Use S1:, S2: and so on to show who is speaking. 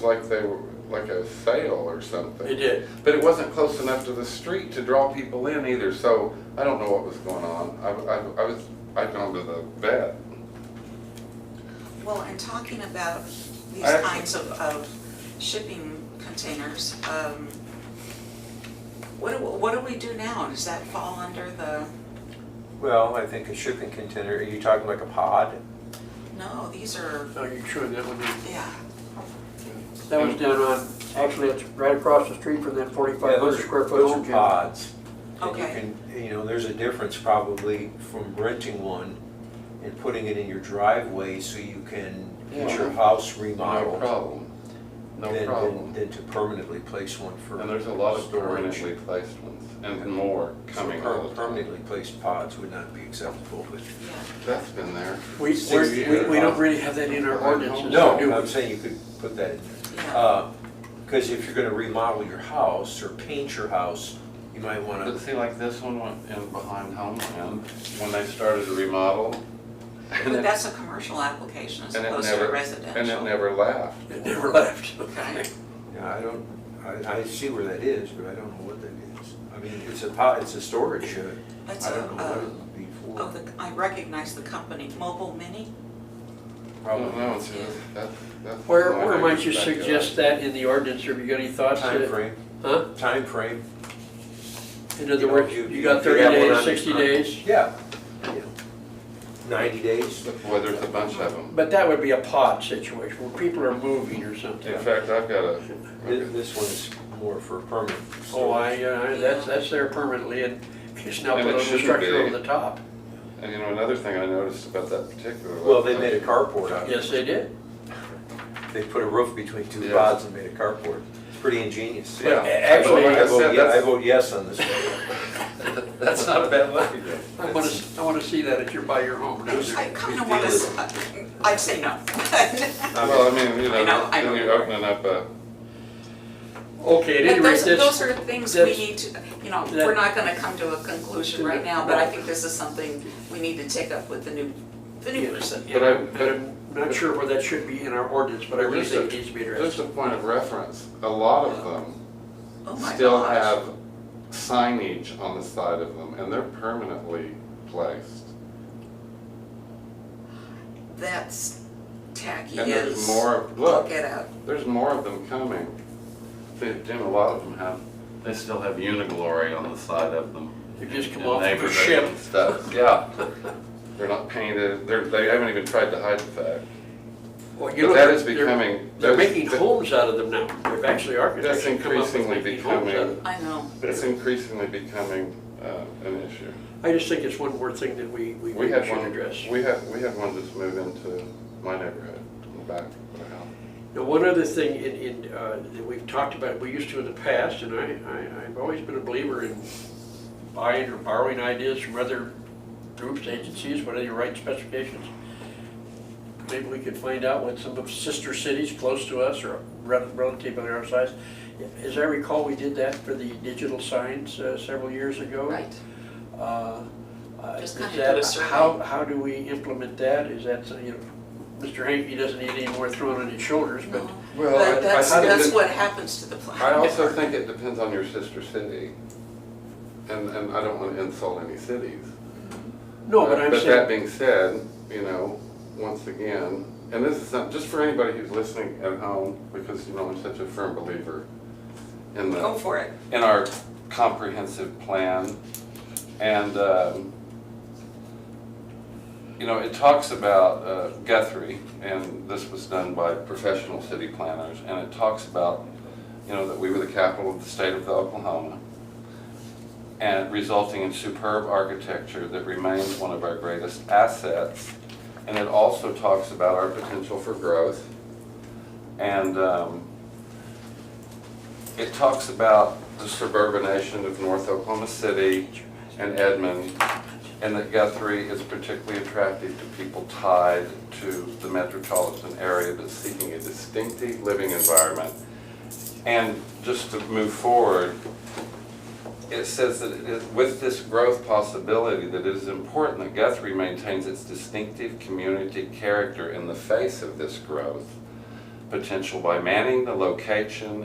S1: like they were, like a sale or something.
S2: It did.
S1: But it wasn't close enough to the street to draw people in either, so I don't know what was going on. I, I, I was, I'd gone to the vet.
S3: Well, and talking about these
S1: I-
S3: kinds of, of shipping containers, um, what do, what do we do now? Does that fall under the,
S4: Well, I think a shipping container, are you talking like a pod?
S3: no, these are,
S2: Are you Oh, sure that would be,
S3: yeah,
S2: that was down on, actually, it's right across the street from that forty-five
S4: Those
S2: hundred
S4: are-
S2: square foot
S4: those are
S2: home gym.
S4: Pods. And you
S3: Okay.
S4: can, you know, there's a difference probably from renting one and putting it in your driveway so you can get your
S1: Yeah.
S4: house
S1: No
S4: remodeled.
S1: problem. No
S4: than-
S1: problem.
S4: Than to permanently place one for.
S1: And there's a lot of
S4: storage.
S1: permanently placed ones and more
S4: So
S1: coming
S4: per-
S1: all the time.
S4: Permanently placed pods would not be acceptable, but.
S3: yeah.
S1: That's been there.
S2: We,
S4: Six
S2: we're- we,
S1: years.
S2: we don't really have that in our ordinances,
S4: No,
S2: do we?
S4: I'm saying you could put that in.
S3: Yeah.
S1: Uh,
S4: Because if you're gonna remodel your house or paint your house, you might wanna
S1: But see, like this one went in behind Homeland when they started to remodel. and
S3: But
S1: it-
S3: that's a commercial application as
S1: and it
S3: opposed to
S1: never-
S3: a residential.
S1: And it never left.
S2: It never left.
S3: Okay,
S4: Yeah, I don't, I, I see where that is, but I don't know what that is. I mean, it's a pot, it's a storage shed.
S3: that's
S4: I don't know what it
S3: a,
S4: would be
S3: uh, oh,
S4: for.
S3: the, I recognize the company, Mobile Mini,
S1: Well,
S4: Probably
S1: no, it's just- that's- that's
S2: Where,
S1: the only
S2: where
S1: thing
S2: might you
S1: back up.
S2: suggest that in the ordinance, or have you got any thoughts? that-
S4: timeframe,
S2: Huh?
S4: timeframe,
S2: In
S4: You
S2: other
S4: know,
S2: words,
S4: you-
S2: you
S4: you
S2: got
S4: could
S2: thirty
S4: have one
S2: days,
S4: on-
S2: sixty
S4: on-
S2: days?
S4: yeah. yeah. Ninety days.
S1: Well, there's a bunch of them.
S2: But that would be a pod situation, where people are moving or something.
S1: In fact, I've got a,
S4: Thi- This one's more for permanent storage.
S2: Oh, I, uh, that's, that's there permanently, and it's now
S1: And
S2: put
S1: it
S2: on the
S1: shouldn't
S2: structure
S1: be.
S2: over the top.
S1: and you know, another thing I noticed about that particular.
S4: Well, they made a carport out of it.
S2: Yes, they did.
S4: They put a roof between two
S1: Yeah.
S4: pods and made a carport. It's pretty ingenious.
S1: Yeah.
S4: A- Actually,
S1: Like I
S4: I vote,
S1: said,
S4: ye- I
S1: that's-
S4: vote yes on this one.
S1: That's not a bad lucky day.
S2: I want to, I want to see that at your, by your home. down there.
S3: I kind
S4: Big
S3: of want
S4: deal is-
S3: to, uh, I'd say no.
S1: Well, I mean, you
S3: I
S1: know,
S3: know, I
S1: then
S3: know.
S1: you're opening up a,
S2: Okay, at any
S3: But
S2: rate,
S3: those,
S2: this,
S3: those are things we
S2: that's-
S3: need to, you know,
S2: that-
S3: we're not gonna come to a conclusion right now, but I think this is something we need to take up with the new, the new person.
S2: Yeah,
S1: But I-
S2: and I'm not sure where that should be in our ordinance, but I really
S1: Just a-
S2: think it needs to be
S1: just
S2: addressed.
S1: a point of reference, a lot of them
S3: Oh my
S1: still
S3: gosh.
S1: have signage on the side of them, and they're permanently placed.
S3: That's tacky
S1: And there's
S3: as-
S1: more, of-
S3: Look
S1: look,
S3: it up.
S1: there's more of them coming. They- Jim, a lot of them have, they still have Uniglory on the side of them.
S2: They just come
S1: in
S2: off of a
S1: neighborhoods
S2: ship.
S1: and Stuff, yeah. They're not painted, they're, they haven't even tried to hide the fact.
S2: Well, you
S1: But
S2: know,
S1: that is
S2: they're-
S1: becoming,
S2: They're
S1: that's-
S2: making homes out of them now. They've actually architects
S1: That's
S2: have come up with
S1: increasingly
S2: making homes out of
S1: becoming,
S2: them.
S3: I know.
S1: that's increasingly becoming uh, an issue.
S2: I just think it's one more thing that we, we
S1: We
S2: we
S1: had
S2: should
S1: one,
S2: address.
S1: we had, we had one just move into my neighborhood, in the back of the house.
S2: Now, one other thing in, in, uh, that we've talked about, we used to in the past, and I, I, I've always been a believer in buying or borrowing ideas from other groups, agencies, whether you write specifications. Maybe we could find out what some of sister cities close to us or rel- relatively our size. As I recall, we did that for the digital signs uh, several years
S1: Oh.
S2: ago.
S3: Right.
S2: Uh, uh,
S3: Just
S2: is
S3: kinda do
S2: that-
S3: a survey.
S2: How, how do we implement that? Is that, something, you know, Mr. Hankey doesn't need any more thrown on his shoulders, but
S3: No.
S1: Well, I- I
S3: But that's,
S1: thought it
S3: that's
S1: did-
S3: what happens to the planet.
S1: I also think it depends on your sister city. And, and I don't want to insult any cities.
S2: No, but I'm
S1: that
S2: saying,
S1: being said, you know, once again, and this is not, just for anybody who's listening at home, because, you know, I'm such a firm believer in the
S3: Go for it.
S1: in our comprehensive plan. And, um, you know, it talks about uh, Guthrie, and this was done by professional city planners, and it talks about, you know, that we were the capital of the state of Oklahoma, and resulting in superb architecture that remains one of our greatest assets. And it also talks about our potential for growth. And, um, it talks about the suburbanation of North Oklahoma City and Edmond, and that Guthrie is particularly attractive to people tied to the metropolitan area that's seeking a distinctive living environment. And just to move forward, it says that it is- with this growth possibility, that it is important that Guthrie maintains its distinctive community character in the face of this growth potential by manning the location